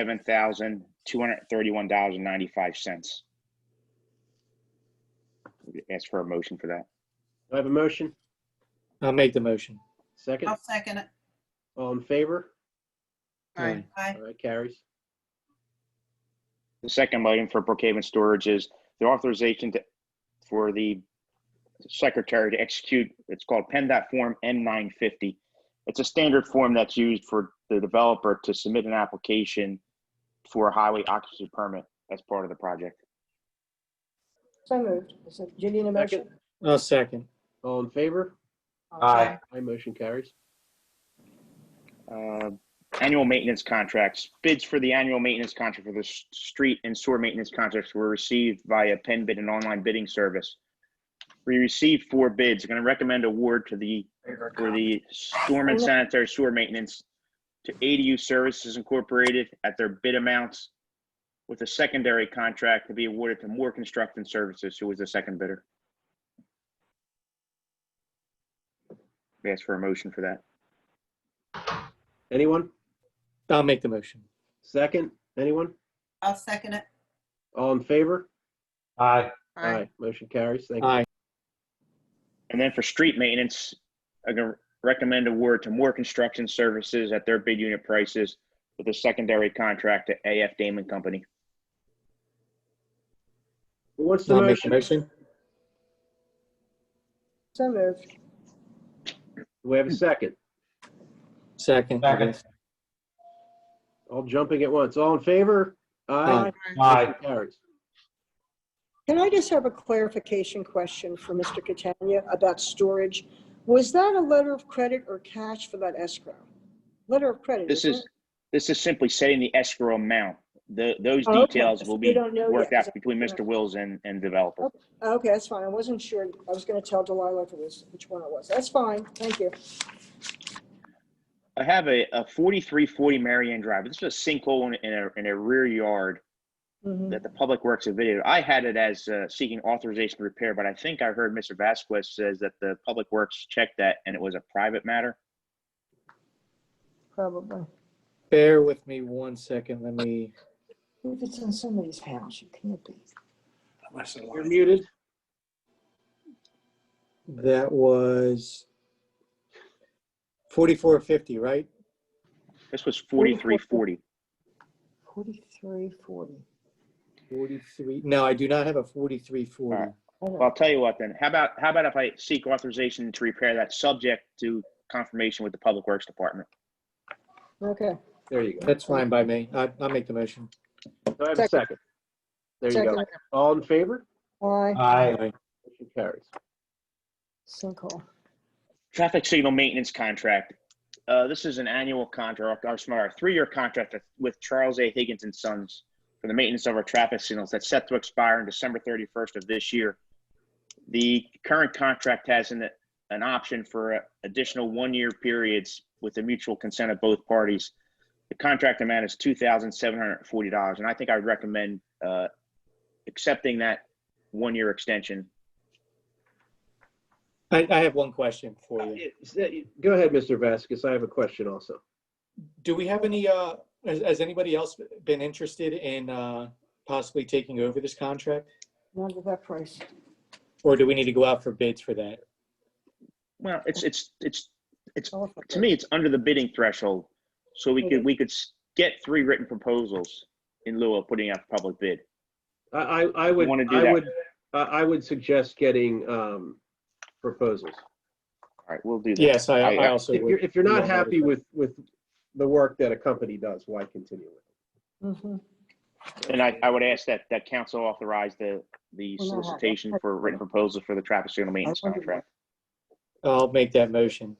seven thousand two hundred thirty-one dollars and ninety-five cents. Ask for a motion for that. Do I have a motion? I'll make the motion. Second? I'll second it. All in favor? Aye. Aye. All right, carries. The second item for Brookhaven Storage is the authorization to, for the secretary to execute, it's called PennDOT Form N950. It's a standard form that's used for the developer to submit an application for a highway occupancy permit as part of the project. So moved. Is it Julian a motion? I'll second. All in favor? Aye. My motion carries. Uh, Annual maintenance contracts, bids for the annual maintenance contract for the s- street and sewer maintenance contracts were received via pen bid and online bidding service. We received four bids, going to recommend award to the for the storm and sanitary sewer maintenance to ADU Services Incorporated at their bid amounts with a secondary contract to be awarded to Moore Construction Services, who was the second bidder. We Ask for a motion for that. Anyone? I'll make the motion. Second? Anyone? I'll second it. All in favor? Aye. Aye. Motion carries. Thank you. Aye. And then for street maintenance, I'm gonna recommend award to Moore Construction Services at their bid unit prices with a secondary contract to AF Damon Company. Who wants the I'll make the motion? motion. So moved. Do we have a second? Second. Second. All jumping at once. All in favor? Aye. Aye. Motion Carries. Can I just have a clarification question for Mr. Catania about storage? Was that a letter of credit or cash for that escrow? Letter of credit, This isn't is, this is simply setting the escrow amount. The, those Oh, okay. details will We be don't know yet. worked Is out that between correct? Mr. Wills and, and developer. it? Okay, that's fine. I wasn't sure. I was going to tell Delilah if it was, which one it was. That's fine. Thank you. I have a, a forty-three forty Marianne Drive. This is a sinkhole in, in a, in a rear yard Mhm. that the Public Works have videoed. I had it as uh, seeking authorization to repair, but I think I heard Mr. Vasquez says that the Public Works checked that and it was a private matter. Probably. Bear with me one second. Let me, If it's in somebody's house, you can't be. You're muted. that was 4450, right? This was forty-three forty. 4340. 43, no, I do not have a 4340. Alright. Well, I'll tell you what then. How about, how about if I seek authorization to repair that subject to confirmation with the Public Works Department? Okay. There you go. That's fine by me. I- I'll make the motion. Do I have a second? There you go. Second. All in favor? Uh, Aye. Aye. Motion carries. Sinkhole. Traffic signal maintenance contract. Uh, this is an annual contract, or smart, a three-year contract with Charles A. Higgins and Sons for the maintenance of our traffic signals that's set to expire on December thirty-first of this year. The current contract has an, an option for uh, additional one-year periods with the mutual consent of both parties. The contract amount is two thousand seven hundred and forty dollars, and I think I would recommend, uh, accepting that one-year extension. I, I have one question for you. Is that- Go ahead, Mr. Vasquez. I have a question also. Do we have any, uh, has, has anybody else been interested in, uh, possibly taking over this contract? Not at that price. Or do we need to go out for bids for that? Well, it's, it's, it's Elephant to me, it's under the bidding threshold. So we could, we could s- get three written proposals in lieu of putting out a public bid. I, I I would, wanna do I that. would, I I would suggest getting um proposals. All right, we'll do that. Yes, I, I- I also If you're, would. if you're not Yeah. happy with, with the work that a company does, why continue with bid. Mhm. it? And I, I would ask that, that council authorize the, the Well, no, I- solicitation for written proposals for the traffic signal maintenance wondered contract. I'll make that motion.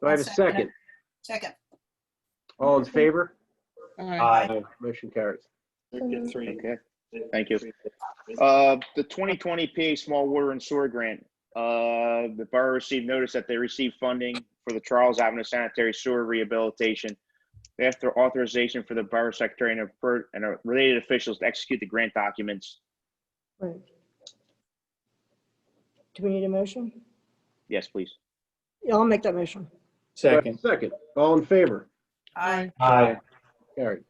Do I have a second? Second. All in favor? Aye. Motion carries. Okay, thank you. Uh, the twenty twenty PA Small Water and Sewer Grant, uh, the borough received notice that they received funding for the Charles Avenue Sanitary Sewer Rehabilitation. After authorization for the borough secretary and, appro- and uh, related officials to execute the grant documents. Right. Do we need a motion? Yes, please. Yeah, I'll make that motion. Do I have a Second. Second. All in favor? Aye. Aye. Carried.